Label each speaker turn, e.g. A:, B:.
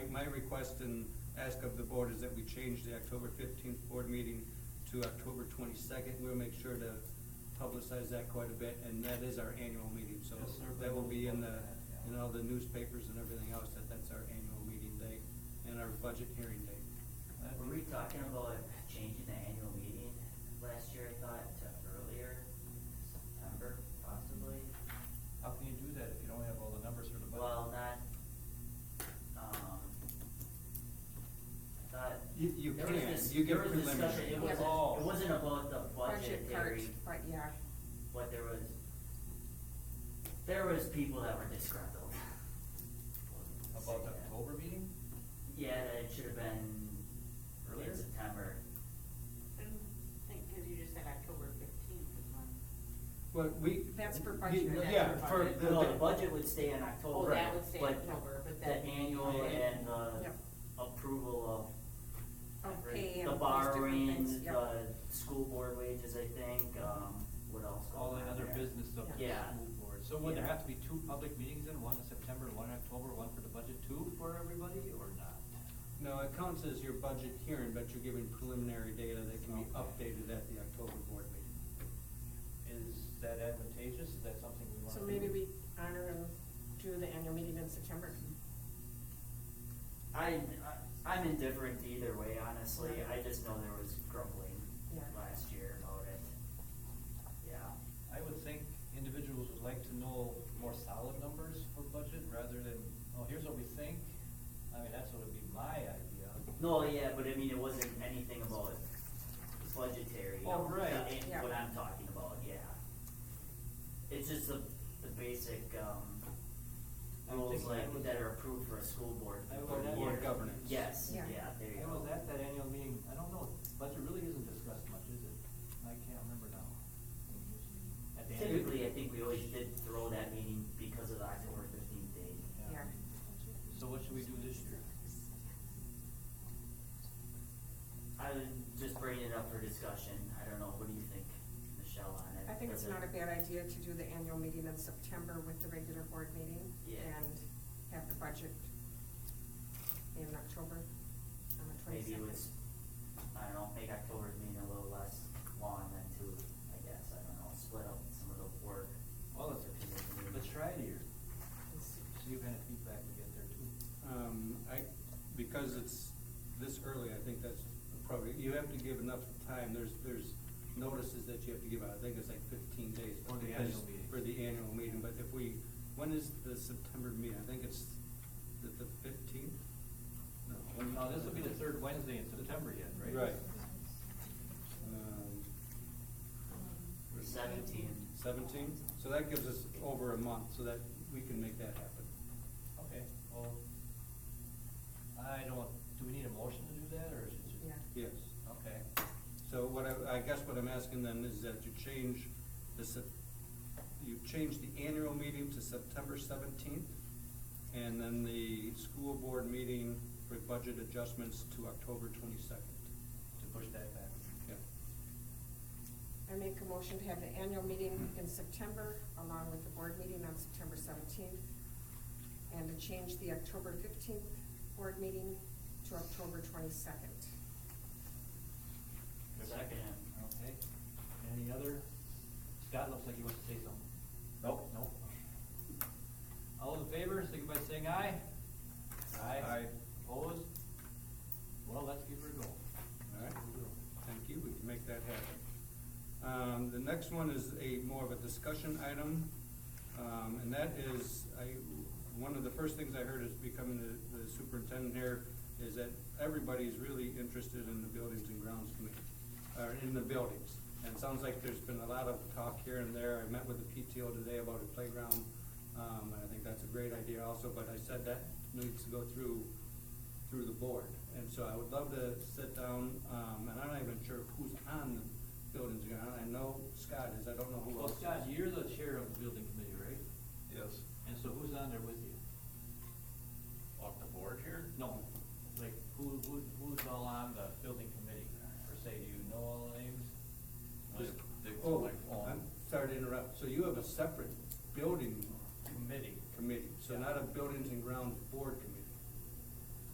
A: my request and ask of the board is that we change the October fifteenth board meeting to October twenty-second. We'll make sure to publicize that quite a bit, and that is our annual meeting, so
B: Yes, sir.
A: that will be in the, in all the newspapers and everything else, that that's our annual meeting day and our budget hearing day.
C: Were we talking about changing the annual meeting last year, I thought, to earlier, September possibly?
B: How can you do that if you don't have all the numbers for the budget?
C: Well, not, um, I thought.
A: You- you
C: there was
A: can.
C: this-
A: You get
C: there was discussion,
A: preliminary.
C: It
D: Yeah,
C: was
D: but-
C: all, it wasn't about the
D: Budget part,
C: budgetary,
D: right, yeah.
C: but there was, there was people that were disgruntled. Wasn't
B: About the
C: saying that.
B: October meeting?
C: Yeah, that it should have been
B: Earlier?
C: in September.
E: I think, cause you just said October fifteenth is when.
A: Well, we.
D: That's for
A: y-
D: budget, that's
A: Yeah,
D: for
A: for.
D: budget.
A: the-
C: No, the budget would stay in October.
E: Oh, that would stay in
C: but
E: October, but
C: The
E: then-
C: annual and
D: Yep.
C: the approval of.
D: Of pay and
C: The
D: all those different things,
C: borrowing,
D: yep.
C: the school board wages, I think, um, what else?
B: All
C: goes
B: that
C: on
B: other
C: there?
B: business of the
C: Yeah.
B: school board. So would there
C: Yeah.
B: have to be two public meetings then, one in September, one in October, one for the budget, two for everybody, or not?
A: No, it counts as your budget hearing, but you're giving preliminary data that can be updated at the October board meeting.
B: Is that advantageous? Is that something we want to
D: So
B: do?
D: maybe we honor and do the annual meeting in September.
C: I, I- I'm indifferent to either way, honestly,
D: Yeah.
C: I just know there was grumbling
D: Yeah.
C: last year about it. Yeah.
B: I would think individuals would like to know more solid numbers for budget rather than, oh, here's what we think. I mean, that's what would be my idea.
C: No, yeah, but I mean, it wasn't anything about budgetary.
B: Oh, right.
C: and
D: Yeah.
C: What I'm talking about, yeah. It's just the, the basic, um,
B: I would think
C: rules
B: I
C: like
B: would-
C: that are approved for a school board.
B: I
C: for
B: would
C: the
B: add-
C: year.
A: Board governance.
C: Yes, yeah,
D: Yeah.
C: there you
B: I
C: go.
B: was at Oh, that annual meeting, I don't know, budget really isn't discussed much, is it? I can't remember now. At the annual-
C: Typically, I think we always did throw that meeting because of the October fifteenth date.
D: Yeah.
B: So what should we do this year?
C: I was just bringing it up for discussion, I don't know, what do you think, Michelle, on it?
D: I think it's
C: Does it-
D: not a bad idea to do the annual meeting in September with the regular board meeting.
C: Yeah.
D: And have the budget in October on the
C: Maybe it
D: twenty-second.
C: was, I don't know, make October's meeting a little less long than two, I guess, I don't know, split up some of the work.
B: Well, let's, let's try it here. See what kind of feedback we get there too.
A: Um, I, because it's this early, I think that's probably, you have to give enough time, there's, there's notices that you have to give out, I think it's like fifteen days.
B: For the
A: because-
B: annual meeting.
A: For the annual meeting, but if we, when is the September meeting, I think it's the, the fifteenth? No. when-
B: Now, this will be the third Wednesday in September yet, right?
A: Right. Um,
C: For seventeen.
A: seventeen, so that gives us over a month, so that we can make that happen.
B: Okay, well, I don't, do we need a motion to do that, or is it just?
D: Yeah.
A: Yes.
B: Okay,
A: So what I, I guess what I'm asking then is that you change the, Sep- you change the annual meeting to September seventeenth, and then the school board meeting for budget adjustments to October twenty-second.
B: to push that back.
A: Yeah.
D: I make a motion to have the annual meeting in September along with the board meeting on September seventeenth. And to change the October fifteenth board meeting to October twenty-second.
C: Second.
B: Okay, any other? Scott looks like he wants to say something.
F: Nope.
B: Nope. All in favor, signify by saying aye.
A: Aye.
B: Opposed? Well, let's give her a go.
A: All right, thank you, we can make that happen. Um, the next one is a more of a discussion item, um, and that is, I, one of the first things I heard is becoming the, the superintendent here, is that everybody's really interested in the buildings and grounds committee, or in the buildings. And it sounds like there's been a lot of talk here and there, I met with the PTO today about a playground, um, and I think that's a great idea also, but I said that needs to go through through the board. And so I would love to sit down, um, and I'm not even sure who's on the buildings, and grounds. I know Scott is, I don't know who
B: Well,
A: else.
B: Scott, you're the chair of the building committee, right?
F: Yes.
B: And so who's on there with
A: Oh,
B: you?